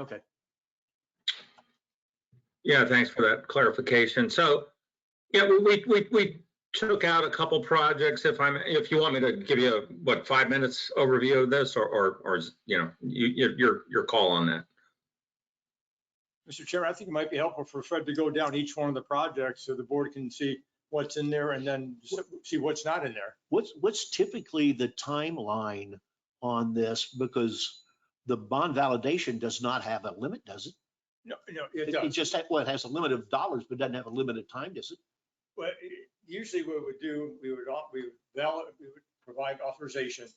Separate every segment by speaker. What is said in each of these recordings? Speaker 1: Okay,
Speaker 2: Yeah, thanks for that clarification. So, yeah, we- we, we, we took out a couple projects. If I'm, if you want me to give you a, what, five minutes overview of this or, or, or, is- you know, you, you- your, your call on that.
Speaker 1: Mr. Chairman, I think it might be helpful for Fred to go down each one of the projects so the board can see what's in there and then s- see what's not in there.
Speaker 3: What's, what's typically the timeline on this? Because the bond validation does not have a limit, does it?
Speaker 1: No, no, it
Speaker 3: It it
Speaker 1: does.
Speaker 3: just, ha- well, it has a limit of dollars, but doesn't have a limit of time, does it?
Speaker 1: Well, it- usually what we do, we would, au- we would valid, we would provide authorization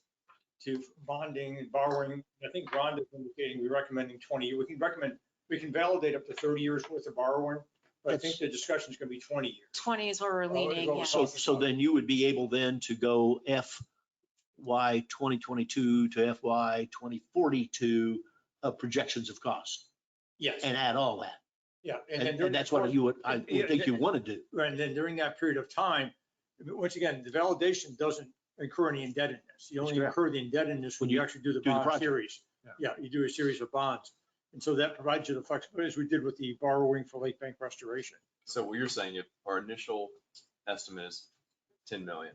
Speaker 1: to bonding and borrowing. I think Rhonda is indicating we're recommending 20, we can recommend, we can validate up to 30 years worth of borrowing, but I think the discussion is going to be 20 years.
Speaker 4: 20 is where we're
Speaker 1: Oh, it
Speaker 4: leaning,
Speaker 1: goes
Speaker 4: yeah.
Speaker 3: So, so then you would be able then to go FY 2022 to FY 2042 uh, projections of cost
Speaker 1: Yes,
Speaker 3: and add all that.
Speaker 1: yeah.
Speaker 3: And
Speaker 1: then during
Speaker 3: and
Speaker 1: the
Speaker 3: that's what
Speaker 1: course-
Speaker 3: you would, I
Speaker 1: Yeah,
Speaker 3: would think you want to do.
Speaker 1: Right, And then during that period of time, once again, the validation doesn't incur any indebtedness. You only
Speaker 3: Correct.
Speaker 1: incur the indebtedness when
Speaker 3: When you
Speaker 1: you actually do the
Speaker 3: do the
Speaker 1: bond
Speaker 3: project.
Speaker 1: series.
Speaker 3: Yeah.
Speaker 1: Yeah, you do a series of bonds. And so that provides you the flexibility, as we did with the borrowing for Lake Bank Restoration.
Speaker 5: So what you're saying, if our initial estimate is ten million.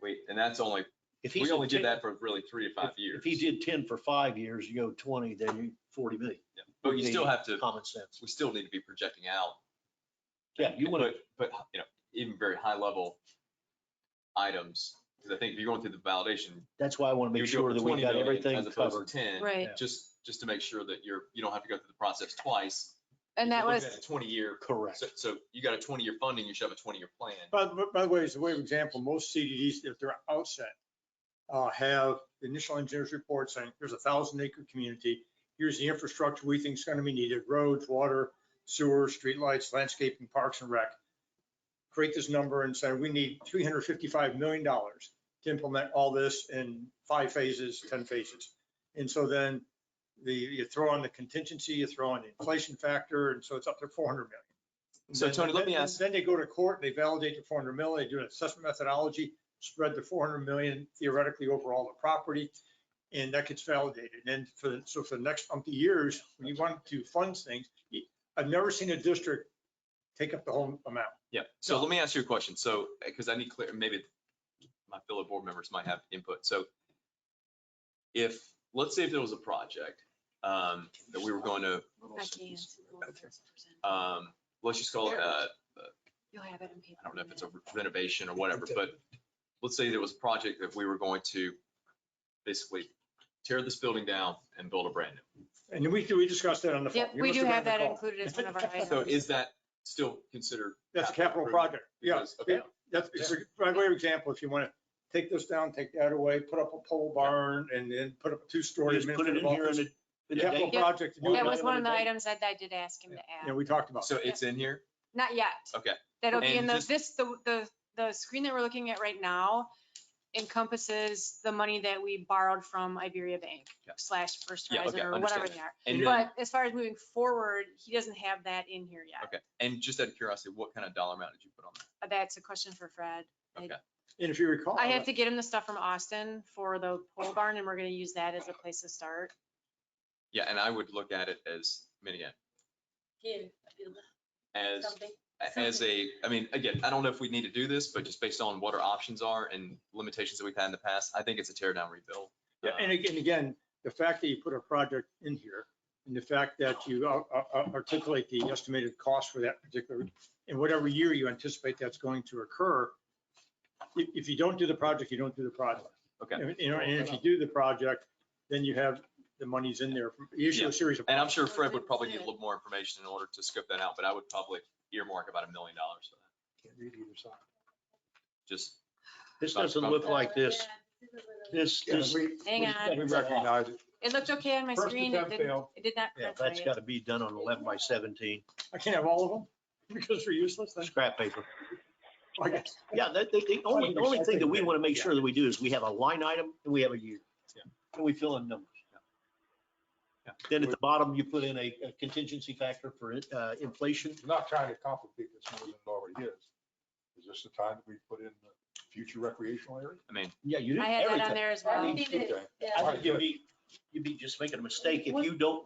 Speaker 5: Wait, and that's only,
Speaker 3: If he
Speaker 5: we
Speaker 3: said
Speaker 5: only
Speaker 3: 10
Speaker 5: did that for really three to five years.
Speaker 3: If he did 10 for five years, you go 20, then you 40 million,
Speaker 5: Yeah, But you still
Speaker 3: the-
Speaker 5: have to,
Speaker 3: common sense.
Speaker 5: we still need to be projecting out.
Speaker 3: Yeah, you want to,
Speaker 5: But, but, you know, even very high level items, because I think if you're going through the validation.
Speaker 3: that's why I want to
Speaker 5: you
Speaker 3: make
Speaker 5: would go
Speaker 3: sure
Speaker 5: for
Speaker 3: that we
Speaker 5: 20
Speaker 3: got
Speaker 5: million
Speaker 3: everything
Speaker 5: As opposed
Speaker 3: covered.
Speaker 5: to ten.
Speaker 4: Right,
Speaker 3: Yeah.
Speaker 5: Just, just to make sure that you're, you don't have to go through the process twice.
Speaker 4: and
Speaker 5: If
Speaker 4: that
Speaker 5: you're
Speaker 4: was,
Speaker 5: looking at a Twenty year,
Speaker 3: Correct.
Speaker 5: so, so you got a twenty year funding, you should have a twenty year plan.
Speaker 1: By, the- by the way, as a way of example, most CDDs, if they're outset, uh, have the initial engineer's report saying, here's a thousand acre community. Here's the infrastructure we think is going to be needed, roads, water, sewer, streetlights, landscaping, parks and rec. Create this number and say, we need three hundred fifty-five million dollars to implement all this in five phases, ten phases. And so then the, you throw on the contingency, you throw on the inflation factor, and so it's up to four hundred million.
Speaker 5: So,
Speaker 1: Then-
Speaker 5: Tony, let me
Speaker 1: then-
Speaker 5: ask-
Speaker 1: Then they go to court, they validate the four hundred million, they do an assessment methodology, spread the four hundred million theoretically over all the property, and that gets validated. And for, the- so for the next umpty years, when you want to fund things, you- I've never seen a district take up the whole amount.
Speaker 5: Yeah, so let me ask you a question. So, because I need clear, maybe my fellow board members might have input. So if, let's say if there was a project um, that we were going to,
Speaker 4: I can't.
Speaker 5: um, let's just call it, uh,
Speaker 4: You'll have it in paper.
Speaker 5: I don't know if
Speaker 4: in a
Speaker 5: it's a renovation or whatever, but let's say there was a project that we were going to basically tear this building down and build a brand new.
Speaker 1: And we, we discussed that on the
Speaker 4: minute.
Speaker 1: phone.
Speaker 4: Yep,
Speaker 1: You
Speaker 4: we
Speaker 1: must
Speaker 4: do
Speaker 1: been
Speaker 4: have
Speaker 1: on
Speaker 4: that
Speaker 1: the call.
Speaker 4: included as one of our items.
Speaker 5: So is that still considered?
Speaker 1: That's a capital
Speaker 5: improvement?
Speaker 1: project. Yeah,
Speaker 5: Because- Okay,
Speaker 1: that's, it's a- by way of example, if you want to take this down, take that away, put up a pole barn, and then put up a two-story
Speaker 3: Just put it
Speaker 1: administrative
Speaker 3: in here
Speaker 1: office.
Speaker 3: in a, in a day.
Speaker 1: Capital
Speaker 4: Yeah.
Speaker 1: project.
Speaker 3: That
Speaker 4: That was one of the
Speaker 1: Yeah.
Speaker 4: items that I did ask him to
Speaker 1: Yeah,
Speaker 4: add.
Speaker 1: we talked about.
Speaker 5: so
Speaker 1: it.
Speaker 5: it's in here?
Speaker 4: Not yet.
Speaker 5: Okay.
Speaker 4: That'll be in
Speaker 5: And
Speaker 4: the,
Speaker 5: just-
Speaker 4: this, the, the, the screen that we're looking at right now encompasses the money that we borrowed from Iberia Bank
Speaker 5: Yeah.
Speaker 4: slash First
Speaker 5: Yeah,
Speaker 4: Horizon
Speaker 5: okay,
Speaker 4: or
Speaker 5: understand
Speaker 4: whatever they are.
Speaker 5: And then-
Speaker 4: But as far as moving forward, he doesn't have that in here yet.
Speaker 5: Okay, and just out of curiosity, what kind of dollar amount did you put on that?
Speaker 4: Uh, That's a question for Fred.
Speaker 1: And if you recall.
Speaker 4: I have to get him the stuff from Austin for the pole barn and we're gonna use that as a place to start.
Speaker 5: Yeah, and I would look at it as, I mean, again, as, as a, I mean, again, I don't know if we need to do this, but just based on what our options are and limitations that we've had in the past, I think it's a tear down rebuild.
Speaker 1: Yeah,
Speaker 5: Uh,
Speaker 1: And again, again, the fact that you put a project in here and the fact that you ar- ar- articulate the estimated cost for that particular, in whatever year you anticipate that's going to occur. If, if you don't do the project, you don't do the project.
Speaker 5: Okay.
Speaker 1: And, You know, and if you do the project, then you have the monies in there. from- You issue
Speaker 5: Yeah.
Speaker 1: a series of.
Speaker 5: And I'm sure Fred would probably need a little more information in order to scope that out, but I would probably earmark about a million dollars for that. Just,
Speaker 3: This doesn't look like this. This, this,
Speaker 4: Hang on,
Speaker 3: we
Speaker 1: recognize
Speaker 4: it looked okay on my
Speaker 1: First
Speaker 4: screen. It
Speaker 1: attempt
Speaker 4: didn't,
Speaker 1: failed.
Speaker 4: it did not
Speaker 3: yeah,
Speaker 4: print
Speaker 3: that's
Speaker 4: right.
Speaker 3: got to be done on 11 by 17
Speaker 1: I can't have all of them because they're useless. That's-
Speaker 3: scrap paper.
Speaker 1: I guess-
Speaker 3: Yeah, that, the, the only, the only thing that we want to make sure that we do is we have a line item and we have a year.
Speaker 5: Yeah.
Speaker 3: And we fill in numbers.
Speaker 5: Yeah.
Speaker 3: Then at the bottom, you put in a a contingency factor for uh, inflation.
Speaker 6: I'm not trying to complicate this more than it already is. Is this the time that we put in the future recreational area?
Speaker 5: I mean,
Speaker 3: Yeah, you did
Speaker 4: I had
Speaker 3: everything.
Speaker 4: that on there as well.
Speaker 3: I think you'd be, you'd be just making a mistake if you don't